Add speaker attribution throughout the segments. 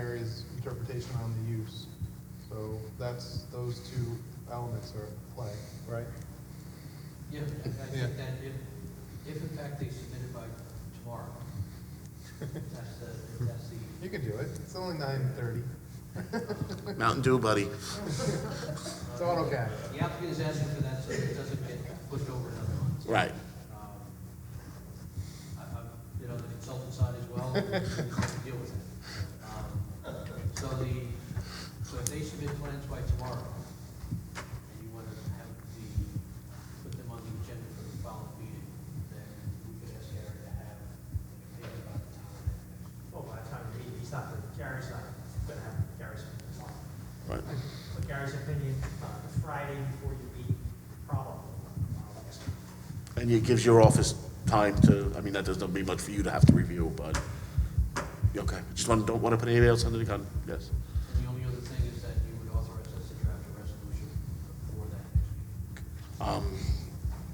Speaker 1: his interpretation on the use. So that's, those two elements are at play, right?
Speaker 2: Yeah, I I
Speaker 1: Yeah.
Speaker 2: think that if, if in fact they submit it by tomorrow, that's the, that's the,
Speaker 1: You can do it, it's only nine thirty,
Speaker 3: Mountain Dew, buddy.
Speaker 1: it's AutoCAD.
Speaker 2: the applicant is asking for that so it doesn't get pushed over another month.
Speaker 3: Right.
Speaker 2: Um, I- I'm, you know, the consultant side as well, we have to deal with it. Um, So the, so if they submit plans by tomorrow, and you want to have the, put them on the agenda for the following meeting, then we could ask Gary to have an opinion about the town.
Speaker 4: Well, by the time he, he's not, Gary's not gonna have Gary's opinion.
Speaker 3: Right.
Speaker 4: But Gary's opinion on Friday before you meet, probably. uh, next week.
Speaker 3: And it gives your office time to, I mean, that doesn't be much for you to have to review, but, you okay. Just want, don't want to put anybody else under the gun, yes.
Speaker 2: And the only other thing is that you would authorize us to draft a resolution for that next meeting.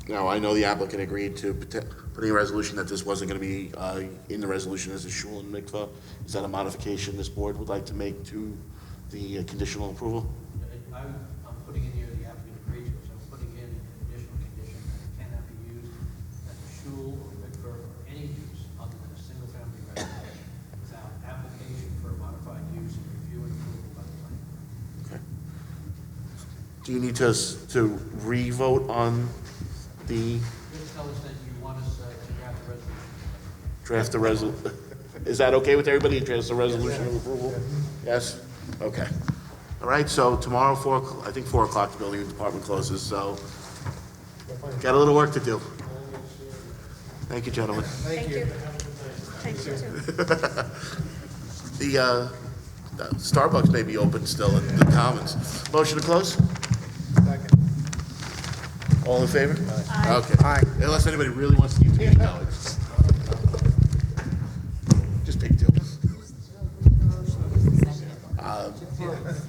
Speaker 3: Um, Now, I know the applicant agreed to put- putting a resolution that this wasn't going to be uh, in the resolution as a shul and mikvah. Is that a modification this board would like to make to the uh, conditional approval?
Speaker 2: And I'm, I'm putting in here the applicant agrees, so I'm putting in an additional condition that it cannot be used as a shul or mikveh or any use other than a single-family residence without application for a modified use and review and approval by the planning board.
Speaker 3: Okay. Do you need to, s- to re-vote on the
Speaker 2: Just tell us that you want us uh, to draft a resolution.
Speaker 3: draft the resol, is that okay with everybody, draft the resolution of approval? Yes? Okay. All right, so tomorrow, four, o'clock- I think four o'clock, the building department closes, so got a little work to do. Thank you, gentlemen.
Speaker 5: Thank you. Thank you, too.
Speaker 3: The, uh, Starbucks may be open still in the Commons. Motion to close?
Speaker 1: Second.
Speaker 3: All in favor? Aye. Okay. Aye. Unless anybody really wants to keep the meeting going. Just take two. Uh,